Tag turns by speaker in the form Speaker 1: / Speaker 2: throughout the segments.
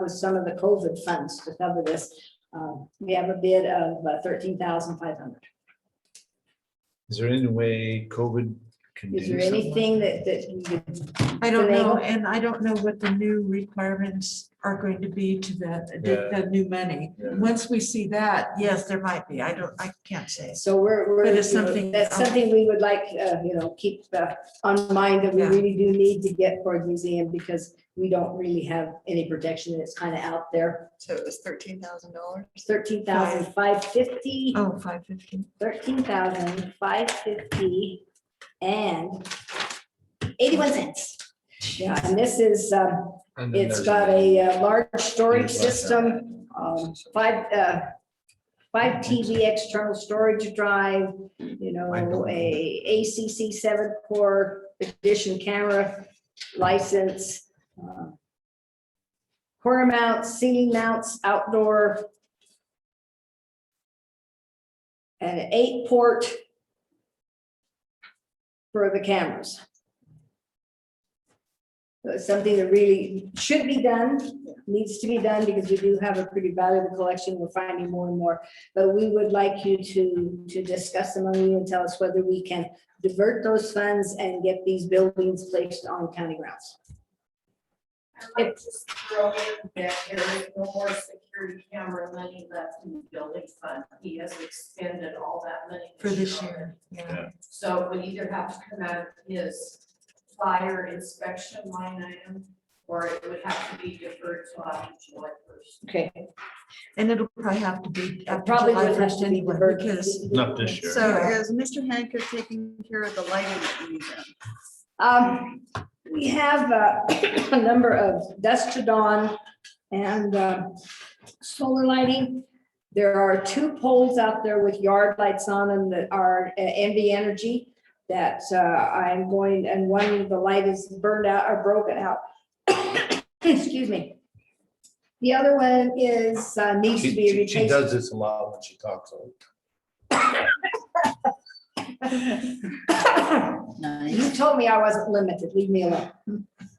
Speaker 1: with some of the COVID funds to cover this. Um, We have a bid of uh, thirteen thousand five hundred.
Speaker 2: Is there any way COVID can do
Speaker 1: Is there
Speaker 2: something?
Speaker 1: anything that, that you could-
Speaker 3: I don't
Speaker 1: Do they
Speaker 3: know,
Speaker 1: go-
Speaker 3: and I don't know what the new requirements are going to be to the, the- the new money.
Speaker 2: Yeah.
Speaker 3: Once we see that, yes, there might be. I don't, I can't say.
Speaker 1: so we're, we're.
Speaker 3: But it's
Speaker 1: you know,
Speaker 3: something- um,
Speaker 1: That's something we would like, uh, you know, keep uh, on mind that we
Speaker 3: Yeah.
Speaker 1: really do need to get for a museum because we don't really have any protection. It's kind of out there.
Speaker 4: So it was thirteen thousand dollars?
Speaker 1: It's thirteen thousand five fifty.
Speaker 3: Oh, five fifteen.
Speaker 1: thirteen thousand five fifty and eighty-one cents. Yeah, and this is, um,
Speaker 2: And then
Speaker 1: it's
Speaker 2: there's
Speaker 1: got a uh, large storage
Speaker 2: Things like that.
Speaker 1: system, um, five, uh, five TV external storage drive, you know, a ACC seven core edition camera license, uh, corner mounts, ceiling mounts, outdoor, and an eight port for the cameras. So it's Something that really should be done, needs to be done, because we do have a pretty valuable collection, we're finding more and more. But we would like you to, to discuss among you and tell us whether we can divert those funds and get these buildings placed on county grounds.
Speaker 5: I might just throw in that there is no more security camera money left in the building fund. He has expended all that money.
Speaker 3: for this year.
Speaker 2: Yeah.
Speaker 3: Yeah.
Speaker 5: So it would either have to come out of his fire inspection line item, or it would have to be deferred to after July first.
Speaker 1: Okay.
Speaker 3: And it'll probably have to be after
Speaker 1: Probably
Speaker 3: July
Speaker 1: will have
Speaker 3: first
Speaker 1: to be
Speaker 3: anyway,
Speaker 1: diverted.
Speaker 3: because
Speaker 2: Not this year.
Speaker 4: So is Mr. Hancock taking care of the lighting at the museum?
Speaker 1: Um, we have uh, a number of dusk to dawn and uh, solar lighting. There are two poles out there with yard lights on them that are uh, NV Energy that uh, I'm going, and one, the light is burned out or broken out. Excuse me. The other one is, uh, needs to
Speaker 2: She,
Speaker 1: be
Speaker 2: she- she
Speaker 1: replaced.
Speaker 2: does this a lot when she talks. so
Speaker 1: You told me I wasn't limited, leave me alone.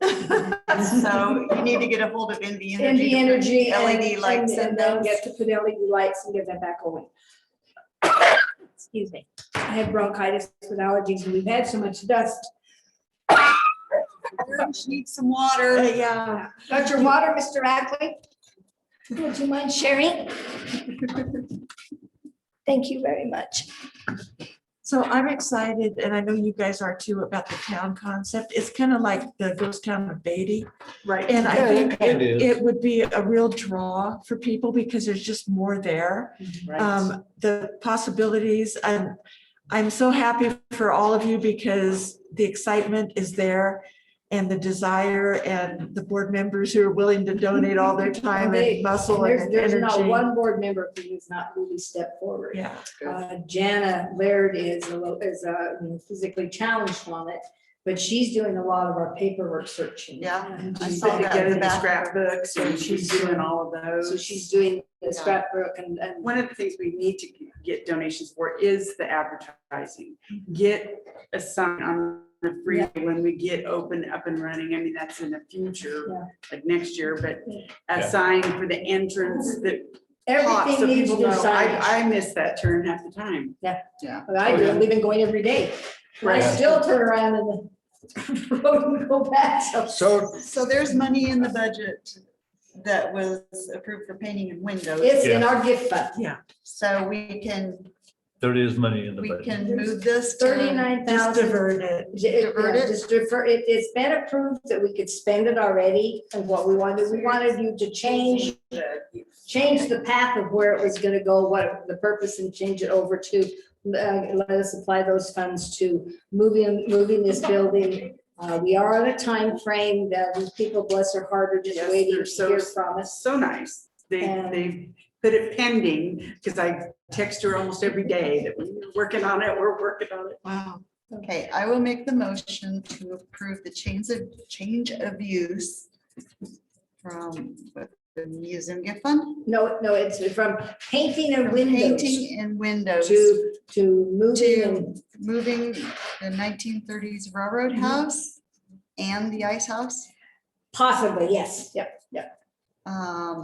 Speaker 4: So you need to get a hold of NV
Speaker 1: And
Speaker 4: Energy.
Speaker 1: the energy.
Speaker 4: to put
Speaker 1: and- E
Speaker 4: LED lights in
Speaker 1: and- And then
Speaker 4: those.
Speaker 1: get to put LED lights and get that back going. Excuse me. I have bronchitis with allergies and we've had so much dust.
Speaker 4: She needs some water.
Speaker 3: yeah,
Speaker 1: Got your water, Mr. Ackley? Would you mind sharing? Thank you very much.
Speaker 3: so I'm excited and I know you guys are too about the town concept. It's kind of like the ghost town of Beatty.
Speaker 4: Right.
Speaker 3: And I think
Speaker 2: It
Speaker 3: it-
Speaker 2: is.
Speaker 3: it would be a real draw for people because there's just more there. um, the possibilities. I'm, I'm so happy for all of you because the excitement is there and the desire and the board members who are willing to donate all their time
Speaker 1: They-
Speaker 3: and muscle
Speaker 1: There's,
Speaker 3: and
Speaker 1: there's not
Speaker 3: energy.
Speaker 1: one board member who has not really stepped forward.
Speaker 3: Yeah,
Speaker 1: Uh, Jana Laird is a little, is uh, physically challenged on it, but she's doing a lot of our paperwork searching.
Speaker 4: Yeah,
Speaker 1: And
Speaker 4: I
Speaker 1: she's
Speaker 4: saw
Speaker 1: put
Speaker 4: that
Speaker 1: together
Speaker 4: in the
Speaker 1: this-
Speaker 4: scrapbooks and she's doing all of
Speaker 1: So
Speaker 4: those.
Speaker 1: she's doing the
Speaker 4: Yeah.
Speaker 1: scrapbook and, and
Speaker 6: One of the things we need to get donations for is the advertising.
Speaker 4: Mhm.
Speaker 6: Get a sign on the freeway when we get open up and running. I mean, that's in the
Speaker 1: Yeah.
Speaker 6: future, like next year, but
Speaker 2: Yeah.
Speaker 6: a sign for the entrance that pops so
Speaker 1: everything needs
Speaker 6: people
Speaker 1: new
Speaker 6: know. I,
Speaker 1: signage.
Speaker 6: I miss that turn half the time.
Speaker 1: But I do, we've been going every day. I
Speaker 2: Right.
Speaker 1: still turn around in the road and go back. So
Speaker 2: So
Speaker 4: So there's money in the budget that was approved for painting and windows.
Speaker 1: it's in our gift fund.
Speaker 4: So we can,
Speaker 2: there is money in the
Speaker 4: we
Speaker 2: budget.
Speaker 4: can move this. to-
Speaker 1: Thirty-nine
Speaker 3: just
Speaker 1: thousand.
Speaker 3: divert it.
Speaker 4: divert it?
Speaker 1: Just defer, it, it's been approved that we could spend it already and what we wanted, we wanted you to change, change the path of where it was gonna go, what the purpose and change it over to, uh, let us apply those funds to moving, moving this building. Uh, we are on a time frame that these people, bless their heart, are just
Speaker 6: Yes,
Speaker 1: waiting
Speaker 6: they're
Speaker 1: to
Speaker 6: so-
Speaker 1: hear from us.
Speaker 6: So nice. They,
Speaker 1: And-
Speaker 6: they put it pending because I text her almost every day that we're working on it, we're working on it.
Speaker 3: Wow.
Speaker 4: Okay, I will make the motion to approve the change of, change of use from the museum gift fund,
Speaker 1: No, no, it's from painting and
Speaker 4: from
Speaker 1: windows
Speaker 4: painting and windows,
Speaker 1: to, to moving and
Speaker 4: to moving the nineteen thirties
Speaker 1: Mm-hmm.
Speaker 4: railroad house and the ice house.
Speaker 1: Possibly, yes, yep, yep.
Speaker 4: Um,